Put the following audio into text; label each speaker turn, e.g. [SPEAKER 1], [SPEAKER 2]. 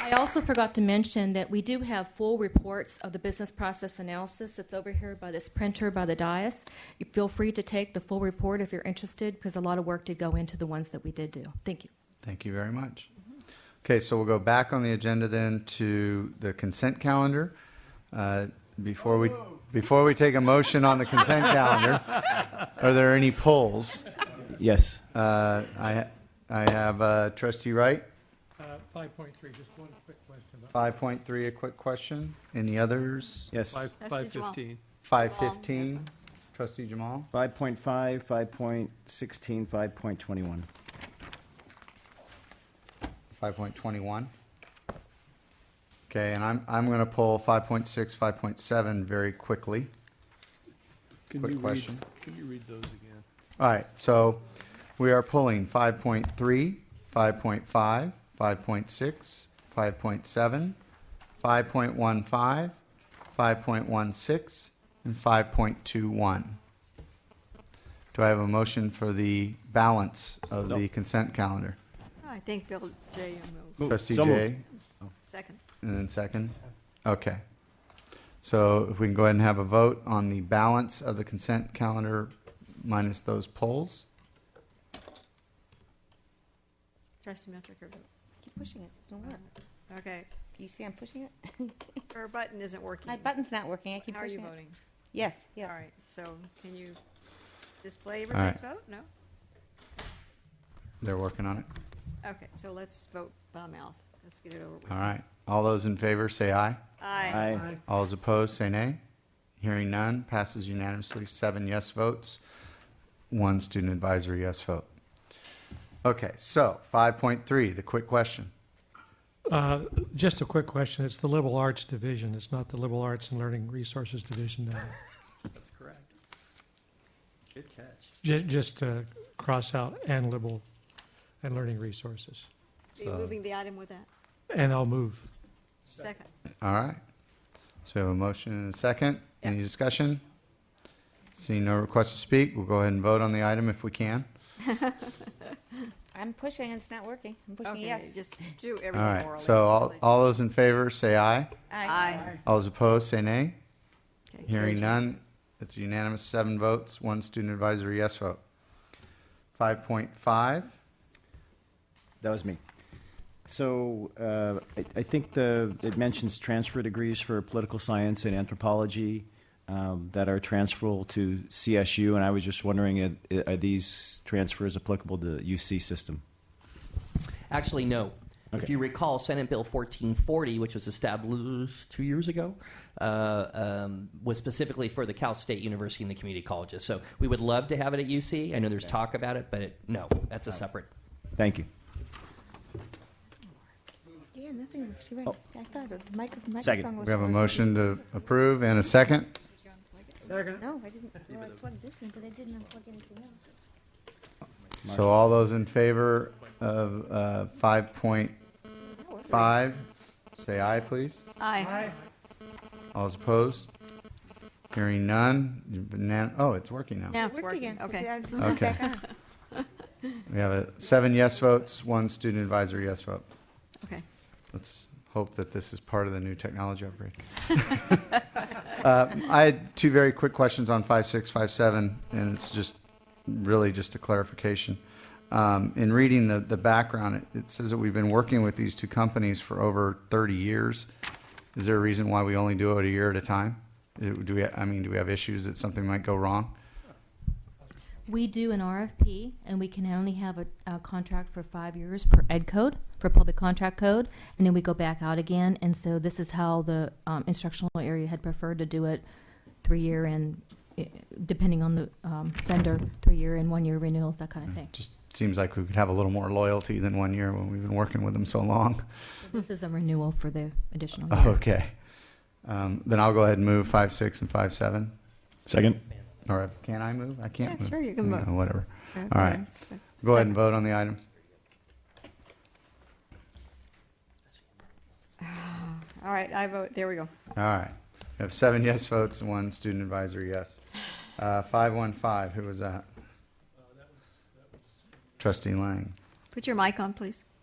[SPEAKER 1] I also forgot to mention that we do have full reports of the business process analysis. It's over here by this printer, by the dais. You feel free to take the full report if you're interested, because a lot of work did go into the ones that we did do. Thank you.
[SPEAKER 2] Thank you very much. Okay, so we'll go back on the agenda then to the consent calendar. Uh, Before we, before we take a motion on the consent calendar, are there any polls?
[SPEAKER 3] Yes.
[SPEAKER 2] Uh, I, I have uh, trustee Wright,
[SPEAKER 4] Uh, Five point three, just one quick question about.
[SPEAKER 2] 5.3, a quick question. Any others?
[SPEAKER 3] Yes.
[SPEAKER 4] Five, five fifteen.
[SPEAKER 2] 5.15, trustee Jamal?
[SPEAKER 3] 5.5, 5.16, 5.21.
[SPEAKER 2] 5.21. Okay, and I'm, I'm going to pull 5.6, 5.7 very quickly.
[SPEAKER 4] Can
[SPEAKER 2] Quick
[SPEAKER 4] you read-
[SPEAKER 2] question.
[SPEAKER 4] Can you read those again?
[SPEAKER 2] All right, so we are pulling 5.3, 5.5, 5.6, 5.7, 5.15, 5.16, and 5.21. Do I have a motion for the balance of the consent calendar?
[SPEAKER 5] I think Bill J. moved.
[SPEAKER 3] Move.
[SPEAKER 2] Trustee
[SPEAKER 3] So moved.
[SPEAKER 2] Jay?
[SPEAKER 5] Second.
[SPEAKER 2] And then second? Okay. So if we can go ahead and have a vote on the balance of the consent calendar minus those polls?
[SPEAKER 5] Trustee Metrick, your vote.
[SPEAKER 6] Keep pushing it. It doesn't work.
[SPEAKER 5] okay.
[SPEAKER 6] You see I'm pushing it?
[SPEAKER 5] Her button isn't working.
[SPEAKER 6] My button's not working. I keep
[SPEAKER 5] How are you
[SPEAKER 6] pushing it.
[SPEAKER 5] voting?
[SPEAKER 6] Yes, yes.
[SPEAKER 5] All right, so can you display everybody's vote? No?
[SPEAKER 2] They're working on it.
[SPEAKER 5] Okay, so let's vote by mouth. Let's get it over with.
[SPEAKER 2] All right. All those in favor say aye.
[SPEAKER 5] Aye.
[SPEAKER 3] Aye.
[SPEAKER 2] All those opposed say nay. Hearing none, passes unanimously, seven yes votes, one student advisory yes vote. Okay, so 5.3, the quick question.
[SPEAKER 4] Uh, just a quick question. It's the liberal arts division. It's not the liberal arts and learning resources division now.
[SPEAKER 7] That's correct. Good catch.
[SPEAKER 4] Ju- just uh, cross out and liberal and learning resources.
[SPEAKER 5] Are you
[SPEAKER 2] So-
[SPEAKER 5] moving the item with that?
[SPEAKER 4] And I'll move.
[SPEAKER 5] Second.
[SPEAKER 2] All right. So we have a motion and a second. Any discussion? Seeing no request to speak, we'll go ahead and vote on the item if we can.
[SPEAKER 6] I'm pushing and it's not working. I'm pushing
[SPEAKER 5] Okay,
[SPEAKER 6] yes.
[SPEAKER 5] Just do
[SPEAKER 2] All
[SPEAKER 5] everything
[SPEAKER 2] right,
[SPEAKER 5] orally.
[SPEAKER 2] so all, all those in favor, say aye.
[SPEAKER 5] Aye.
[SPEAKER 2] All those opposed, say nay.
[SPEAKER 5] Okay,
[SPEAKER 2] Hearing
[SPEAKER 5] carries
[SPEAKER 2] none, it's unanimous, seven votes, one student advisory yes vote. 5.5,
[SPEAKER 3] That was me. So uh, I, I think the, it mentions transfer degrees for political science and anthropology um, that are transferable to CSU, and I was just wondering, are, are these transfers applicable to the UC system?
[SPEAKER 7] Actually, no. If
[SPEAKER 3] Okay.
[SPEAKER 7] you recall, Senate Bill 1440, which was established two years ago, uh, um, was specifically for the Cal State University and the community colleges. So we would love to have it at UC. I know there's talk about it, but it, no, that's a separate.
[SPEAKER 3] Thank you.
[SPEAKER 6] Yeah, nothing works. You're right.
[SPEAKER 3] Oh.
[SPEAKER 6] I thought the micro- microphone
[SPEAKER 3] Second.
[SPEAKER 6] was
[SPEAKER 2] we have a
[SPEAKER 6] on.
[SPEAKER 2] motion to approve and a second.
[SPEAKER 6] No, I didn't. Well, I plugged this in, but I didn't unplug anything else.
[SPEAKER 2] So all those in favor of uh, 5.5, say aye, please.
[SPEAKER 5] Aye.
[SPEAKER 2] All those opposed? Hearing none. unan- Oh, it's working now.
[SPEAKER 5] Now
[SPEAKER 6] It
[SPEAKER 5] it's
[SPEAKER 6] worked
[SPEAKER 5] working.
[SPEAKER 6] again.
[SPEAKER 5] Okay.
[SPEAKER 6] I turned it
[SPEAKER 2] Okay.
[SPEAKER 6] back on.
[SPEAKER 2] We have a seven yes votes, one student advisory yes vote.
[SPEAKER 5] Okay.
[SPEAKER 2] Let's hope that this is part of the new technology upgrade. uh, I had two very quick questions on five six five seven, and it's just really just a clarification. Um, in reading the, the background, it, it says that we've been working with these two companies for over 30 years. Is there a reason why we only do it a year at a time? Do we? I mean, do we have issues that something might go wrong?
[SPEAKER 1] We do an RFP, and we can only have a, a contract for five years per ed code, for public contract code, and then we go back out again. And so this is how the um, instructional area had preferred to do it, three-year and, eh, depending on the um, vendor, three-year and one-year renewals, that kind of thing.
[SPEAKER 2] Just seems like we could have a little more loyalty than one year when we've been working with them so long.
[SPEAKER 1] This is a renewal for the additional year.
[SPEAKER 2] Okay. Um, then I'll go ahead and move five six and five seven.
[SPEAKER 3] Second.
[SPEAKER 2] Or can I move? I can't
[SPEAKER 5] Yeah,
[SPEAKER 2] move.
[SPEAKER 5] sure, you can
[SPEAKER 2] Yeah,
[SPEAKER 5] vote.
[SPEAKER 2] Whatever.
[SPEAKER 5] All
[SPEAKER 2] right. Go ahead and vote on the items.
[SPEAKER 5] All right, I vote, there we go.
[SPEAKER 2] All right. We have seven yes votes and one student advisory yes. Uh, five one five. Who was Uh, that? Trustee Lang.
[SPEAKER 5] Put your mic on, please.